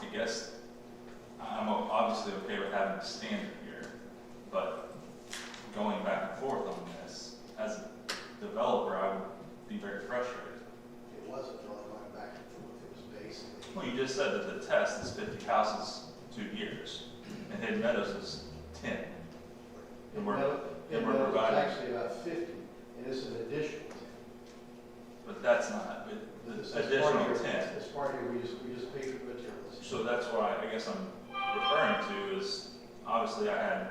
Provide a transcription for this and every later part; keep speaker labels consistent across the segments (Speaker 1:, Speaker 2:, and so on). Speaker 1: I guess, I'm o- obviously okay with having a standard here, but going back and forth on this, as a developer, I would be very frustrated.
Speaker 2: It wasn't really going back and forth, it was basically,
Speaker 1: Well, you just said that the test is fifty houses, two years, and Hidden Meadows is ten. And we're-
Speaker 2: No,
Speaker 1: and we're
Speaker 2: no, it was
Speaker 1: providing-
Speaker 2: actually about fifty, and it's an additional.
Speaker 1: But that's not, it- the
Speaker 2: It's- it's part of
Speaker 1: additional
Speaker 2: your-
Speaker 1: ten.
Speaker 2: It's part of your, we just, we just pay for materials.
Speaker 1: So that's why I guess I'm referring to is, obviously I had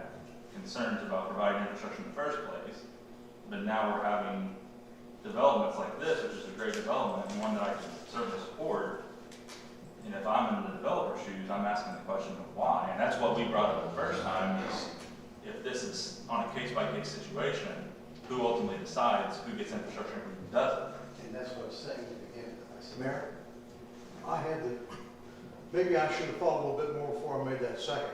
Speaker 1: concerns about providing infrastructure in the first place, but now we're having developments like this, which is a great development, and one that I can certainly support. And if I'm in the developer's shoes, I'm asking the question of why, and that's what we brought up the first time, is if this is on a case-by-case situation, who ultimately decides who gets infrastructure and who doesn't?
Speaker 2: And that's what I was saying at the beginning. I said,
Speaker 3: Mayor, I had the, maybe I should have thought a little bit more before I made that second.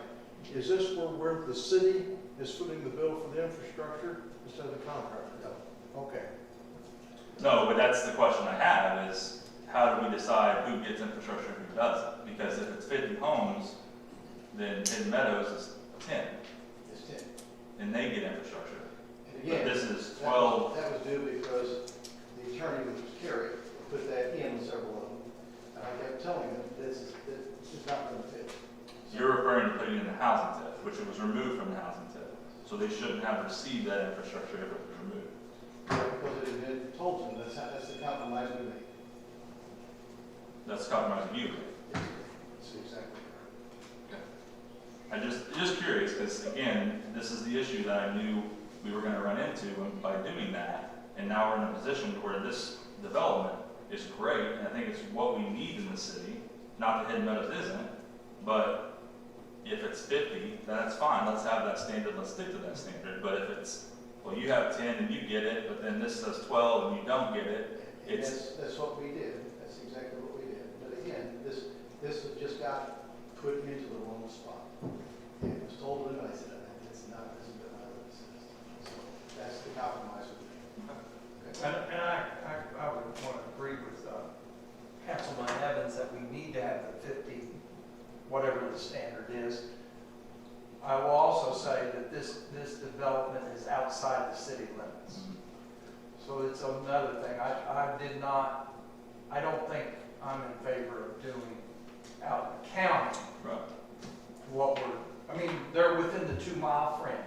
Speaker 3: Is this where, where the city is footing the bill for the infrastructure instead of the contractor?
Speaker 2: No,
Speaker 3: Okay,
Speaker 1: No, but that's the question I have is how do we decide who gets infrastructure and who doesn't? Because if it's fifty homes, then Hidden Meadows is ten
Speaker 2: it's ten.
Speaker 1: and they get infrastructure.
Speaker 2: And
Speaker 1: But
Speaker 2: again,
Speaker 1: this is
Speaker 2: that was,
Speaker 1: twelve,
Speaker 2: that was due because the attorney was carried, put that in several of them. And I kept telling him, this is, this is not gonna fit. So-
Speaker 1: you're referring to putting in the housing tip, which it was removed from the housing tip. So they shouldn't have received that infrastructure if it was removed.
Speaker 2: Yeah, Because it had been told to them, that's how, that's the compromise we made.
Speaker 1: That's compromising you.
Speaker 2: That's exactly right.
Speaker 1: I just, just curious, because again, this is the issue that I knew we were gonna run into and by doing that. And now we're in a position where this development is great, and I think it's what we need in the city. Not that Hidden Meadows isn't, but if it's fifty, then that's fine, let's have that standard, let's stick to that standard. But if it's, well, you have ten and you get it, but then this says twelve and you don't get it,
Speaker 2: And
Speaker 1: It's-
Speaker 2: that's, that's what we did, that's exactly what we did. But again, this, this has just got put into the wrong spot. And it was told to them, I said, "Uh, that's not, that's not how it says." So that's the compromise we made. Okay?
Speaker 4: And, and I, I, I would want to agree with, uh, Councilman Evans that we need to have the fifty, whatever the standard is. I will also say that this, this development is outside the city limits. So it's another thing, I, I did not, I don't think I'm in favor of doing out in the county
Speaker 1: right?
Speaker 4: what we're, I mean, they're within the two mile fringe.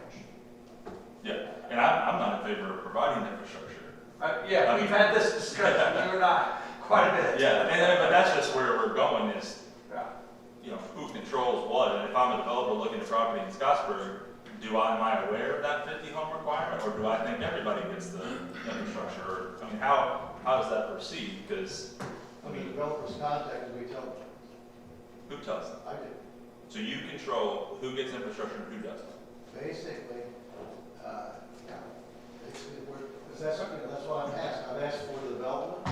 Speaker 1: Yeah, and I'm, I'm not in favor of providing infrastructure.
Speaker 4: Uh, yeah, we've had this discussion, you and I, quite a bit.
Speaker 1: Yeah, and, and- but that's just where we're going is
Speaker 4: Yeah.
Speaker 1: you know, who controls what, and if I'm a developer looking at property in Scottsburg, do I, am I aware of that fifty home requirement, or do I think everybody gets the infrastructure, or, I mean, how, how does that proceed, because,
Speaker 2: I mean, developers contacted, we told them,
Speaker 1: who tells them?
Speaker 2: I did,
Speaker 1: So you control who gets infrastructure and who doesn't.
Speaker 2: basically, uh, yeah. It's, it- we're, is that something, that's why I'm asking, I've asked for the development,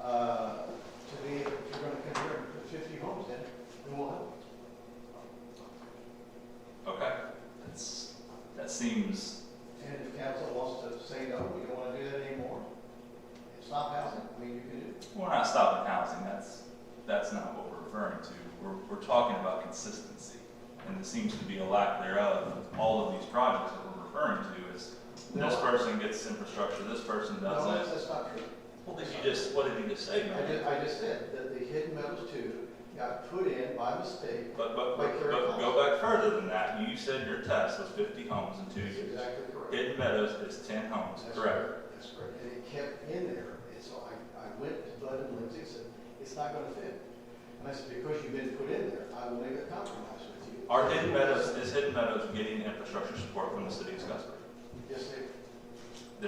Speaker 2: uh, to be, if you're gonna convert fifty homes in, then we'll help.
Speaker 1: Okay, that's, that seems,
Speaker 2: And if council wants to say, no, we don't wanna do that anymore, it's not housing, I mean, you can do it.
Speaker 1: we're not stopping housing, that's, that's not what we're referring to. We're, we're talking about consistency, and there seems to be a lack thereof with all of these projects that we're referring to, is this
Speaker 2: No.
Speaker 1: person gets infrastructure, this person
Speaker 2: No,
Speaker 1: doesn't.
Speaker 2: that's, that's not true.
Speaker 1: Well, did you just, what did you just say,
Speaker 2: I
Speaker 1: man?
Speaker 2: just, I just said that the hidden metals two got put in by mistake.
Speaker 1: But, but, but but go back further than that, you said your test was fifty homes in two
Speaker 2: That's
Speaker 1: years.
Speaker 2: exactly correct.
Speaker 1: Hidden Meadows is ten homes,
Speaker 2: That's
Speaker 1: correct?
Speaker 2: That's correct, and it kept in there, and so I, I went to Bud and Lindsay and said, it's not gonna fit. And I said, because you've been put in there, I will make a compromise with you.
Speaker 1: Are Hidden Meadows, is Hidden Meadows getting infrastructure support from the city of Scottsburg?
Speaker 2: Yes, they,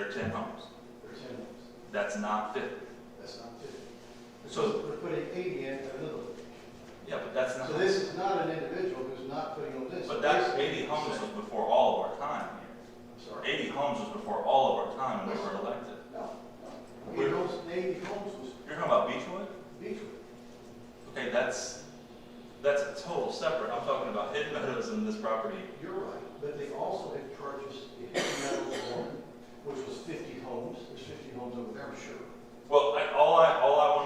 Speaker 1: They're ten homes,
Speaker 2: they're ten homes,
Speaker 1: that's not fifty.
Speaker 2: that's not fifty.
Speaker 1: So-
Speaker 2: We're putting eighty in at another.
Speaker 1: Yeah, but that's
Speaker 2: So this
Speaker 1: not,
Speaker 2: is not an individual who's not putting on this.
Speaker 1: but that eighty homes was before all of our time
Speaker 2: I'm
Speaker 1: here.
Speaker 2: sorry.
Speaker 1: Eighty homes was before all of our time when we were elected.
Speaker 2: No, no.
Speaker 1: Where-
Speaker 2: Eighty homes, eighty homes was
Speaker 1: You're talking about Beechwood?
Speaker 2: Beechwood.
Speaker 1: Okay, that's, that's a total separate, I'm talking about Hidden Meadows and this property
Speaker 2: You're right, but they also had purchased the Hidden Meadows one, which was fifty homes. There's fifty homes over there, I'm sure.
Speaker 1: Well, I, all I, all I